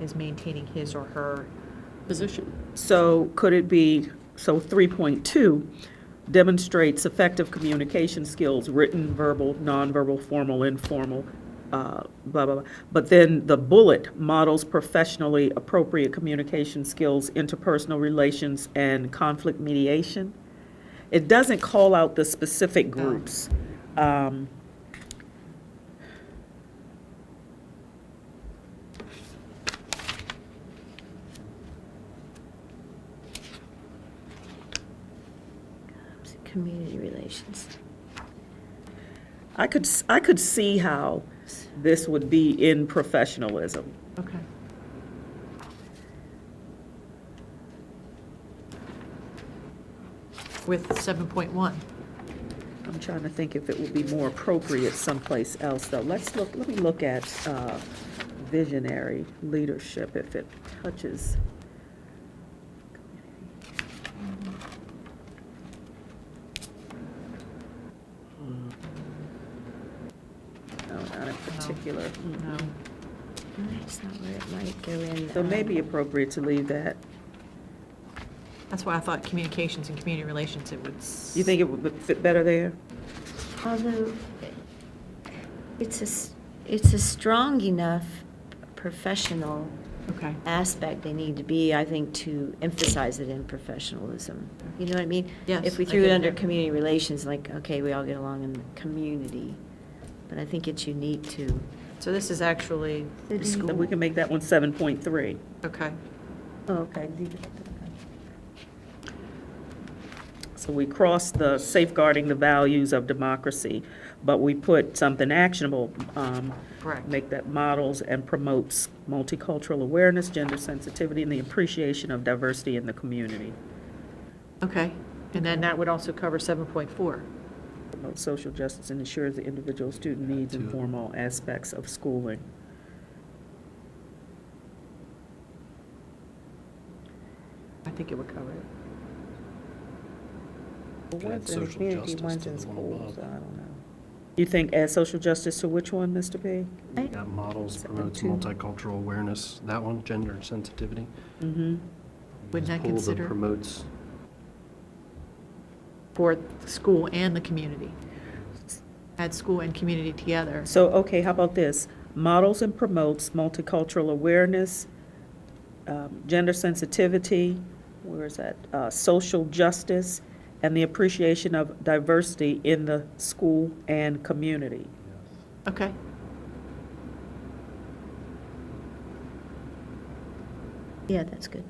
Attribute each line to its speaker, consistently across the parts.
Speaker 1: is maintaining his or her,
Speaker 2: position.
Speaker 3: So could it be, so 3.2 demonstrates effective communication skills, written, verbal, nonverbal, formal, informal, uh, blah, blah, blah. But then the bullet models professionally appropriate communication skills, interpersonal relations, and conflict mediation. It doesn't call out the specific groups. Um,
Speaker 4: Um, Community relations.
Speaker 3: I could, s- I could see how this would be in professionalism.
Speaker 1: okay. With 7.1.
Speaker 3: I'm trying to think if it would be more appropriate someplace else, though. Let's look, let me look at uh, visionary leadership, if it touches. No, not in particular.
Speaker 1: No.
Speaker 4: That's not where it might go in.
Speaker 3: So
Speaker 4: um,
Speaker 3: maybe appropriate to leave that.
Speaker 1: That's why I thought communications and community relations, it would. s-
Speaker 3: You think it would fit better there?
Speaker 4: Although, it's a, s- it's a strong enough professional
Speaker 1: Okay.
Speaker 4: aspect they need to be, I think, to emphasize it in professionalism. You know what I mean?
Speaker 1: Yes,
Speaker 4: If we
Speaker 1: I
Speaker 4: threw it
Speaker 1: get
Speaker 4: under
Speaker 1: that.
Speaker 4: community relations, like, okay, we all get along in the community, but I think it's unique to
Speaker 1: So this is actually,
Speaker 4: the
Speaker 3: Then we
Speaker 4: school.
Speaker 3: can make that one 7.3.
Speaker 1: okay.
Speaker 3: Okay. So we crossed the safeguarding the values of democracy, but we put something actionable. um,
Speaker 1: Correct.
Speaker 3: Make that models and promotes multicultural awareness, gender sensitivity, and the appreciation of diversity in the community.
Speaker 1: Okay. And then that would also cover 7.4.
Speaker 3: Promotes social justice and ensures the individual student needs and form all aspects of schooling.
Speaker 1: I think it would cover it.
Speaker 5: Can add social justice to the one above.
Speaker 3: You think add social justice to which one, Mr. P?
Speaker 4: Right.
Speaker 5: Yeah, models
Speaker 3: Seven
Speaker 5: promotes
Speaker 3: two.
Speaker 5: multicultural awareness, that one, gender sensitivity.
Speaker 3: Mm-hmm.
Speaker 1: Wouldn't that
Speaker 5: Pull the
Speaker 1: consider-
Speaker 5: Promotes,
Speaker 1: For the school and the community. Add school and community together.
Speaker 3: So, okay, how about this? Models and promotes multicultural awareness, um, gender sensitivity, where is that? Uh, Social justice, and the appreciation of diversity in the school and community.
Speaker 1: Okay.
Speaker 4: Yeah, that's good.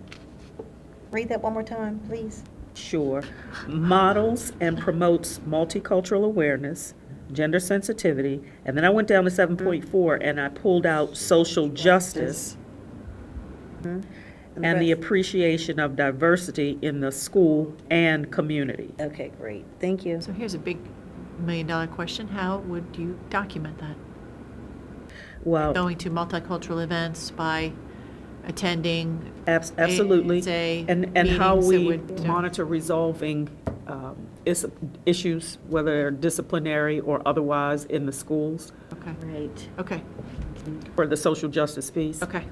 Speaker 6: Read that one more time, please.
Speaker 3: Sure. Models and promotes multicultural awareness, gender sensitivity, and then I went down to seven point four and I pulled out social justice and the
Speaker 6: rest-
Speaker 3: appreciation of diversity in the school and community.
Speaker 6: Okay, great, thank you.
Speaker 1: So here's a big million-dollar question. How would you document that?
Speaker 3: Well, Oh.
Speaker 1: Going to multicultural events by attending?
Speaker 3: abs- absolutely.
Speaker 1: Say
Speaker 3: And, and how
Speaker 1: meetings that
Speaker 3: we
Speaker 1: would- uh,
Speaker 3: monitor resolving um, is- issues, whether they're disciplinary or otherwise in the schools
Speaker 1: Okay,
Speaker 4: Right.
Speaker 1: okay,
Speaker 3: for the social justice piece.
Speaker 1: okay.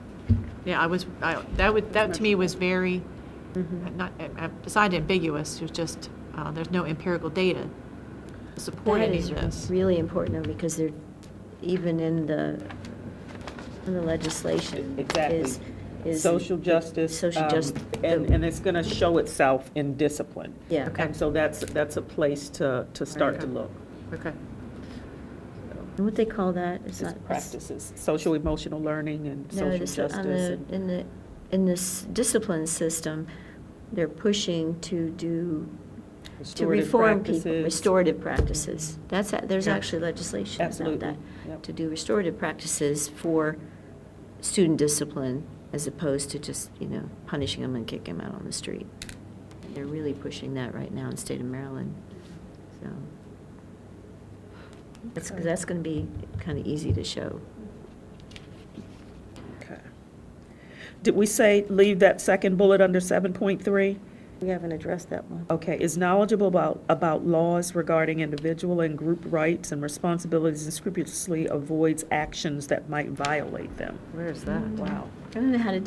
Speaker 1: Yeah, I was, I, that would, that to me was very, not, uh, beside ambiguous, it was just, uh, there's no empirical data to support
Speaker 4: That
Speaker 1: any of
Speaker 4: is
Speaker 1: this.
Speaker 4: really important, though, because they're, even in the, in the legislation.
Speaker 3: E-, Exactly.
Speaker 4: is- is-
Speaker 3: Social justice.
Speaker 4: Social
Speaker 3: um,
Speaker 4: justice.
Speaker 3: And, and it's going to show itself in discipline.
Speaker 4: Yeah.
Speaker 1: Okay.
Speaker 3: And so that's, that's a place to, to start to look.
Speaker 1: Okay,
Speaker 4: And what they call that? It's
Speaker 3: It's
Speaker 4: not. it's-
Speaker 3: practices, social emotional learning and
Speaker 4: No, uh,
Speaker 3: social
Speaker 4: this- on
Speaker 3: justice.
Speaker 4: the-
Speaker 3: and-
Speaker 4: In the, in this discipline system, they're pushing to do, to
Speaker 3: Restorative
Speaker 4: reform people,
Speaker 3: practices.
Speaker 4: restorative practices. That's, a- there's
Speaker 3: Yeah.
Speaker 4: actually legislation about
Speaker 3: Absolutely.
Speaker 4: that.
Speaker 3: Yep.
Speaker 4: To do restorative practices for student discipline as opposed to just, you know, punishing them and kicking them out on the street. They're really pushing that right now in the state of Maryland, so. That's,
Speaker 3: Okay.
Speaker 4: that's going to be kind of easy to show.
Speaker 3: Okay. Did we say leave that second bullet under 7.3?
Speaker 6: We haven't addressed that one.
Speaker 3: Okay, is knowledgeable about, about laws regarding individual and group rights and responsibilities and scrupulously avoids actions that might violate them.
Speaker 4: Where is that?
Speaker 3: Wow.
Speaker 4: I don't know how to do